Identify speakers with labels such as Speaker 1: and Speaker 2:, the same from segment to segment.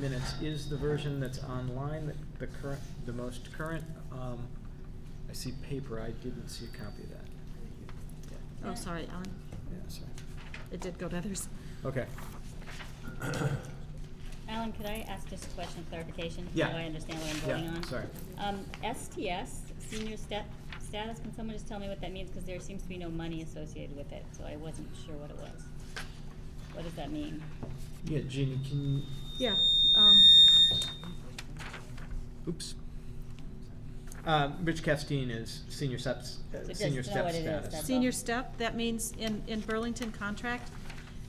Speaker 1: minutes is the version that's online, the- the current, the most current. Um, I see paper, I didn't see a copy of that. Yeah,
Speaker 2: Oh, sorry, Alan.
Speaker 1: yeah, sorry.
Speaker 2: It did go to others.
Speaker 1: Okay,
Speaker 3: Alan, could I ask just a question of clarification?
Speaker 1: Yeah.
Speaker 3: So I understand what I'm voting
Speaker 1: yeah,
Speaker 3: on?
Speaker 1: sorry.
Speaker 3: Um, STS, senior step, status, can someone just tell me what that means? Because there seems to be no money associated with it, so I wasn't sure what it was. What does that mean?
Speaker 1: Yeah, Jeannie, can,
Speaker 2: Yeah, um,
Speaker 1: oops. Um, Rich Castine is senior steps, uh,
Speaker 3: So just
Speaker 1: senior
Speaker 3: know
Speaker 1: step
Speaker 3: what it is,
Speaker 1: status.
Speaker 3: that's-
Speaker 2: senior step, that means in, in Burlington contract,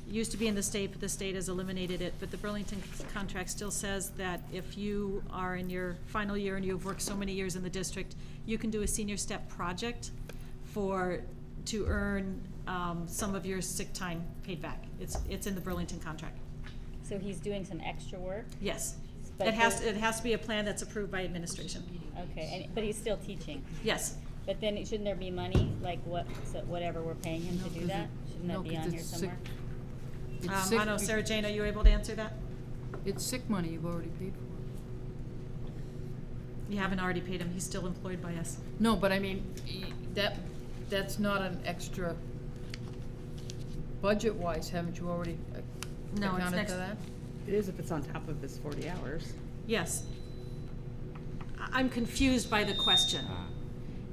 Speaker 2: used to be in the state, but the state has eliminated it, but the Burlington c- contract still says that if you are in your final year and you've worked so many years in the district, you can do a senior step project for, to earn, um, some of your sick time paid back. It's, it's in the Burlington contract,
Speaker 3: So he's doing some extra work?
Speaker 2: yes.
Speaker 3: But
Speaker 2: It has,
Speaker 3: the-
Speaker 2: it has to be a plan that's approved by administration,
Speaker 3: Okay, and, but he's still teaching.
Speaker 2: yes.
Speaker 3: But then, it- shouldn't there be money, like what, so whatever we're paying him
Speaker 4: No,
Speaker 3: to
Speaker 4: 'cause
Speaker 3: do
Speaker 4: it-
Speaker 3: that? Shouldn't
Speaker 4: no,
Speaker 3: that be
Speaker 4: 'cause
Speaker 3: on here
Speaker 4: it's sick-
Speaker 3: somewhere?
Speaker 4: It's
Speaker 2: Um,
Speaker 4: sick
Speaker 2: I know,
Speaker 4: be-
Speaker 2: Sarah Jane, are you able to answer that?
Speaker 4: It's sick money you've already paid for.
Speaker 2: You haven't already paid him, he's still employed by us.
Speaker 4: No, but I mean, y- that, that's not an extra, budget-wise, haven't you already uh,
Speaker 2: No, it's
Speaker 4: accounted
Speaker 2: next-
Speaker 4: for that?
Speaker 5: It is if it's on top of his forty hours.
Speaker 2: Yes. I- I'm confused by the question.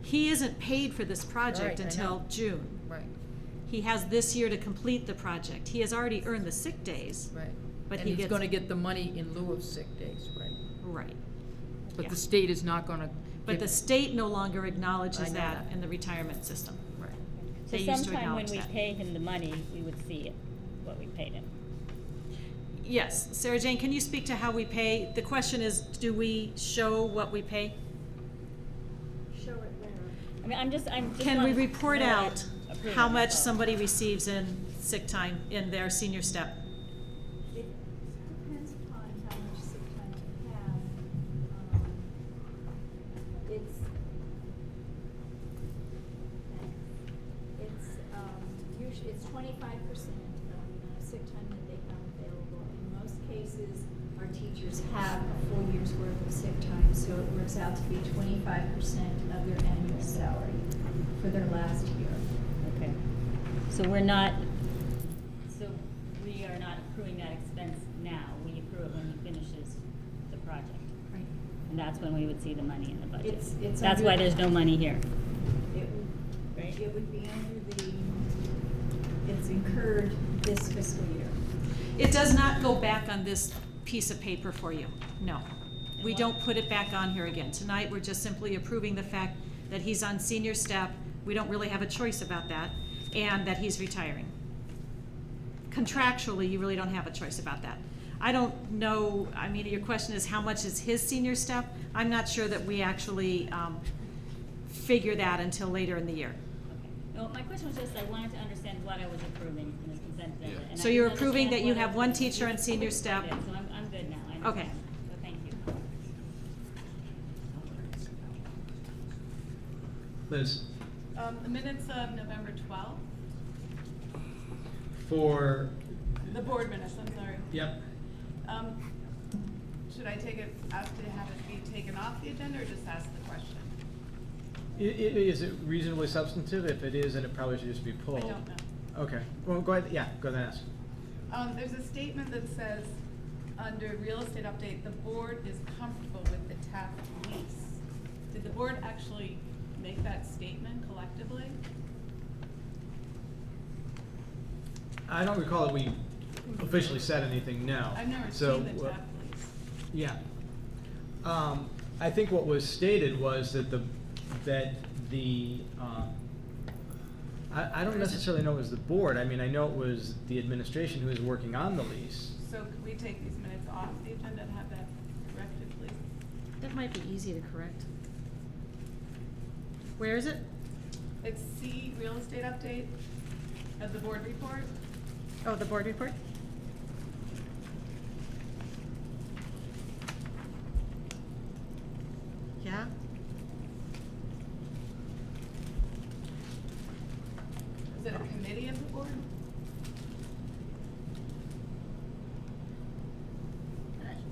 Speaker 2: He isn't paid for this project
Speaker 4: Right, I
Speaker 2: until
Speaker 4: know.
Speaker 2: June.
Speaker 4: Right,
Speaker 2: He has this year to complete the project. He has already earned the sick days.
Speaker 4: right.
Speaker 2: But
Speaker 4: And
Speaker 2: he
Speaker 4: he's
Speaker 2: gets-
Speaker 4: gonna get the money in lieu of sick days, right?
Speaker 2: Right.
Speaker 4: But
Speaker 2: Yeah.
Speaker 4: the state is not gonna.
Speaker 2: But
Speaker 4: give-
Speaker 2: the state no longer
Speaker 4: I
Speaker 2: acknowledges
Speaker 4: know
Speaker 2: that
Speaker 4: that.
Speaker 2: in the retirement system.
Speaker 4: Right.
Speaker 3: So
Speaker 2: They used to
Speaker 3: sometime when
Speaker 2: acknowledge
Speaker 3: we
Speaker 2: that.
Speaker 3: pay him the money, we would see it, what we paid him.
Speaker 2: Yes, Sarah Jane, can you speak to how we pay? The question is, do we show what we pay?
Speaker 6: Show it where?
Speaker 3: I mean, I'm just, I'm just.
Speaker 2: Can we
Speaker 3: wanted to
Speaker 2: report
Speaker 3: know Oh, what I'm
Speaker 2: out
Speaker 3: approving,
Speaker 2: how much
Speaker 3: so.
Speaker 2: somebody receives in sick time in their senior step?
Speaker 6: It depends upon how much sick time you have. Um, It's, it's, um, usually, it's twenty-five percent of the amount of sick time that they have available. In most cases, our teachers have a full year's worth of sick time, so it works out to be twenty-five percent of their annual salary for their last year.
Speaker 3: Okay, so we're not, so we are not accruing that expense now, we accrue it when he finishes the project.
Speaker 6: Right.
Speaker 3: And that's when we would see the money in the budget.
Speaker 6: It's- it's
Speaker 3: That's
Speaker 6: under-
Speaker 3: why there's no money here.
Speaker 6: It would,
Speaker 3: Right.
Speaker 6: it would be under the, it's incurred this fiscal year.
Speaker 2: It does not go back on this piece of paper for you, no. We don't put it back on here again. Tonight, we're just simply approving the fact that he's on senior step, we don't really have a choice about that, and that he's retiring. Contractually, you really don't have a choice about that. I don't know, I mean, your question is how much is his senior step? I'm not sure that we actually um, figure that until later in the year.
Speaker 3: Okay. No, my question was just, I wanted to understand what I was approving in this consent agenda. and I
Speaker 2: So you're
Speaker 3: didn't
Speaker 2: approving
Speaker 3: understand
Speaker 2: that you
Speaker 3: what I
Speaker 2: have one
Speaker 3: was-
Speaker 2: teacher on senior step?
Speaker 3: I did, So I'm, I'm good now, I understand.
Speaker 2: Okay.
Speaker 3: So thank you.
Speaker 1: Liz,
Speaker 7: Um, the minutes of November twelfth,
Speaker 1: for,
Speaker 7: the board minutes, I'm sorry.
Speaker 1: yep,
Speaker 7: Um, should I take it, ask to have it be taken off the agenda or just ask the question?
Speaker 1: I- i- is it reasonably substantive? If it is, then it probably should just be
Speaker 7: I
Speaker 1: pulled.
Speaker 7: don't know.
Speaker 1: Okay, well, go ahead, yeah, go ahead and ask.
Speaker 7: Um, there's a statement that says, under real estate update, the board is comfortable with the Taft lease. Did the board actually make that statement collectively?
Speaker 1: I don't recall that we officially said anything, no.
Speaker 7: I've never
Speaker 1: So,
Speaker 7: seen the
Speaker 1: uh,
Speaker 7: Taft lease.
Speaker 1: Yeah. Um, I think what was stated was that the, that the, um, I, I don't necessarily know it was the board, I mean, I know it was the administration who was working on the lease.
Speaker 7: So could we take these minutes off the agenda and have that corrected, please?
Speaker 2: That might be easy to correct. Where is it?
Speaker 7: It's C, real estate update of the board report.
Speaker 2: Oh, the board report?